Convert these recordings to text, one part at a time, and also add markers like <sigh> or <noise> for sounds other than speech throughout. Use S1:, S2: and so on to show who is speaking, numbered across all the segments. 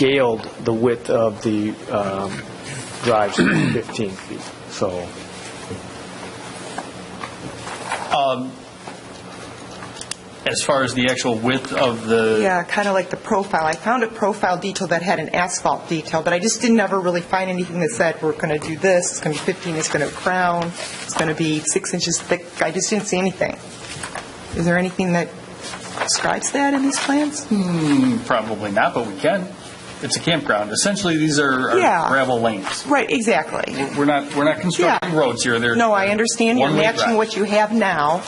S1: scaled the width of the um, drives <clears throat> to 15 feet, so.
S2: As far as the actual width of the,
S3: Yeah, kind of like the profile. I found a profile detail that had an asphalt detail, but I just didn't ever really find anything that said, we're going to do this, it's going to be 15, it's going to crown, it's going to be six inches thick. I just didn't see anything. Is there anything that describes that in these plans?
S2: probably not, but we can. It's a campground. Essentially, these are are
S3: Yeah.
S2: gravel lanes.
S3: Right, exactly.
S2: We're not, we're not constructing
S3: Yeah.
S2: roads here. They're-
S3: No, I understand, you're
S2: One-way
S3: matching
S2: drive.
S3: what you have now,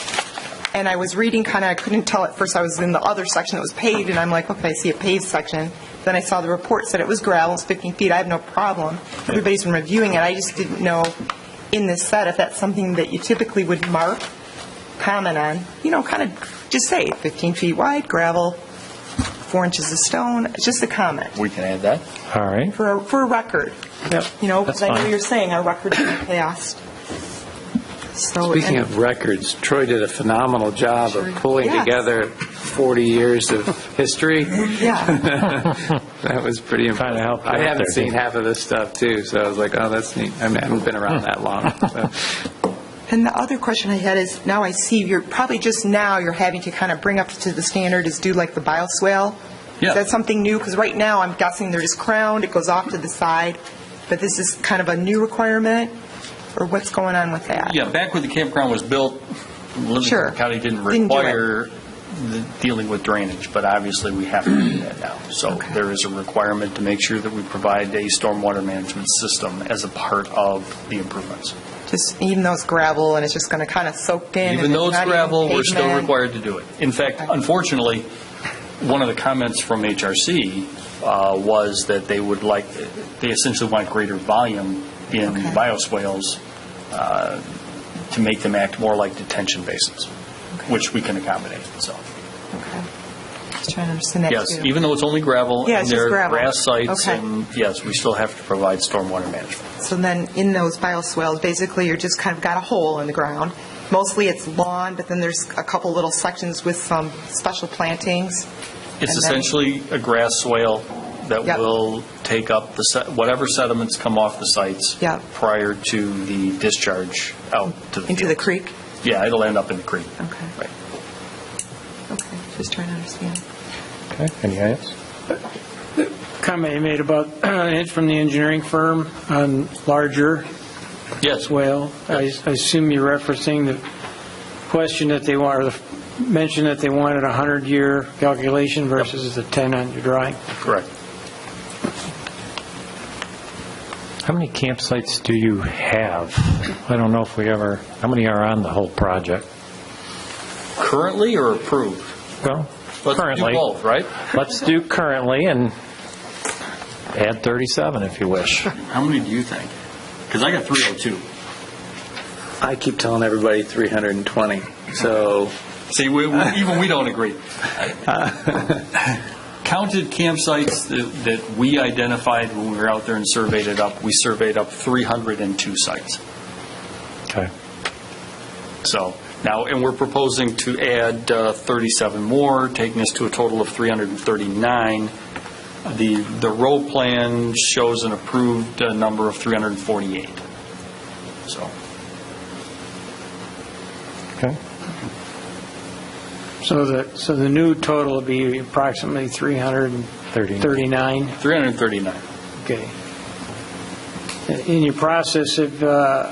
S3: and I was reading, kind of, I couldn't tell at first, I was in the other section that was paved, and I'm like, okay, I see a paved section, then I saw the report said it was gravel, it's 15 feet, I have no problem, everybody's been reviewing it, I just didn't know in this set if that's something that you typically would mark, comment on, you know, kind of, just say 15 feet wide, gravel, four inches of stone, just a comment,
S4: We can add that.
S1: All right.
S3: for, a- for a record.
S1: Yep.
S3: You know,
S5: That's
S3: because I know
S5: fine.
S3: you're saying our records in the past. So-
S5: Speaking
S3: and-
S5: of records, Troy did a phenomenal job of pulling
S3: Yes.
S5: together 40 years of
S1: <laughs>
S5: history.
S3: Yeah,
S2: <laughs>
S5: That was pretty
S1: Kinda
S5: impressive.
S1: helped you out
S5: I haven't
S1: there,
S5: seen
S1: didn't
S5: half of this stuff, too, so I was like, oh, that's neat. I mean, I haven't been around that long.
S1: <laughs>
S5: so.
S3: and the other question I had is, now I see you're, probably just now, you're having to kind of bring up to the standard is do like the bioswale?
S2: Yeah.
S3: Is that something new? Because right now, I'm guessing they're just crowned, it goes off to the side, but this is kind of a new requirement, or what's going on with that?
S2: Yeah, back when the campground was built,
S3: Sure.
S2: Livingston County didn't
S3: Didn't do it.
S2: require the- dealing with drainage, but obviously we have to do that now. So there is a requirement to make sure that we provide a stormwater management system as a part of the improvements.
S3: Just, even though it's gravel and it's just going to kind of soak in? and
S2: Even though it's
S3: not even
S2: gravel, we're still
S3: pavement.
S2: required to do it. In fact,
S3: Okay.
S2: unfortunately, one of the comments from HRC uh, was that they would like, they essentially want greater volume in
S3: Okay.
S2: bioswales uh, to make them act more like detention basins, which we can accommodate, so.
S3: Okay. Just trying to understand that, too.
S2: Yes, even though it's only gravel.
S3: Yeah,
S2: and
S3: it's just
S2: there are
S3: gravel.
S2: grass sites,
S3: Okay.
S2: and yes, we still have to provide stormwater management.
S3: So then, in those bioswales, basically, you're just kind of got a hole in the ground. Mostly it's lawn, but then there's a couple little sections with some special plantings.
S2: It's
S3: And then-
S2: essentially a grass swale that
S3: Yep.
S2: will take up the, se- whatever sediments come off the sites.
S3: Yep.
S2: Prior to the discharge out to the field.
S3: Into the creek?
S2: Yeah, it'll end up in the creek.
S3: Okay.
S2: Right.
S3: Okay, just trying to understand.
S1: Okay, any else?
S6: comment you made about <clears throat> an inch from the engineering firm on larger
S2: Yes,
S6: well. I I assume you're referencing the question that they want, or the mention that they wanted a 100-year calculation versus the 10 on your drawing.
S2: correct.
S1: How many campsites do you have? I don't know if we ever, how many are on the whole project?
S2: Currently or approved?
S1: Well,
S2: Let's do
S1: currently.
S2: both, right?
S1: Let's do currently and add 37 if you wish.
S2: How many do you think? Because I got 302.
S5: I keep telling everybody 320, so
S2: See, we, we- even we don't
S5: <laughs>
S2: agree. Counted campsites that, that we identified when we were out there and surveyed it up, we surveyed up 302 sites.
S1: Okay.
S2: So now, and we're proposing to add uh, 37 more, taking us to a total of 339. The, the road plan shows an approved uh, number of 348. So,
S1: Okay.
S6: So the, so the new total would be approximately 339.
S2: 339.
S6: Okay. In your process of uh,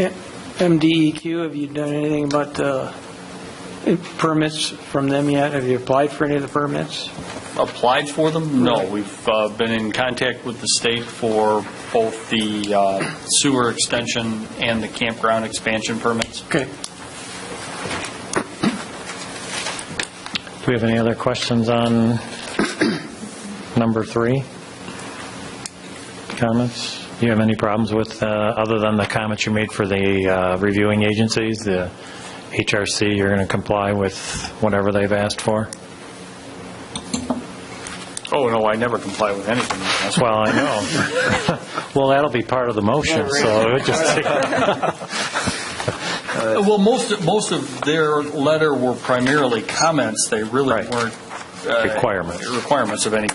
S6: M- MDEQ, have you done anything about the permits from them yet? Have you applied for any of the permits?
S2: applied for them? No, we've uh, been in contact with the state for both the uh, sewer extension and the campground expansion permits.
S6: Okay.
S1: Do we have any other questions on number three? Comments? Do you have any problems with, uh, other than the comments you made for the uh, reviewing agencies, the HRC, you're going to comply with whatever they've asked for?
S2: Oh, no, I never comply with anything. That's why-
S1: Well, I know. <laughs> Well, that'll be part of the motion, so it would just
S2: Well, most, most of their letter were primarily comments. They really
S1: Right.
S2: weren't uh,
S1: Requirements.
S2: Requirements of any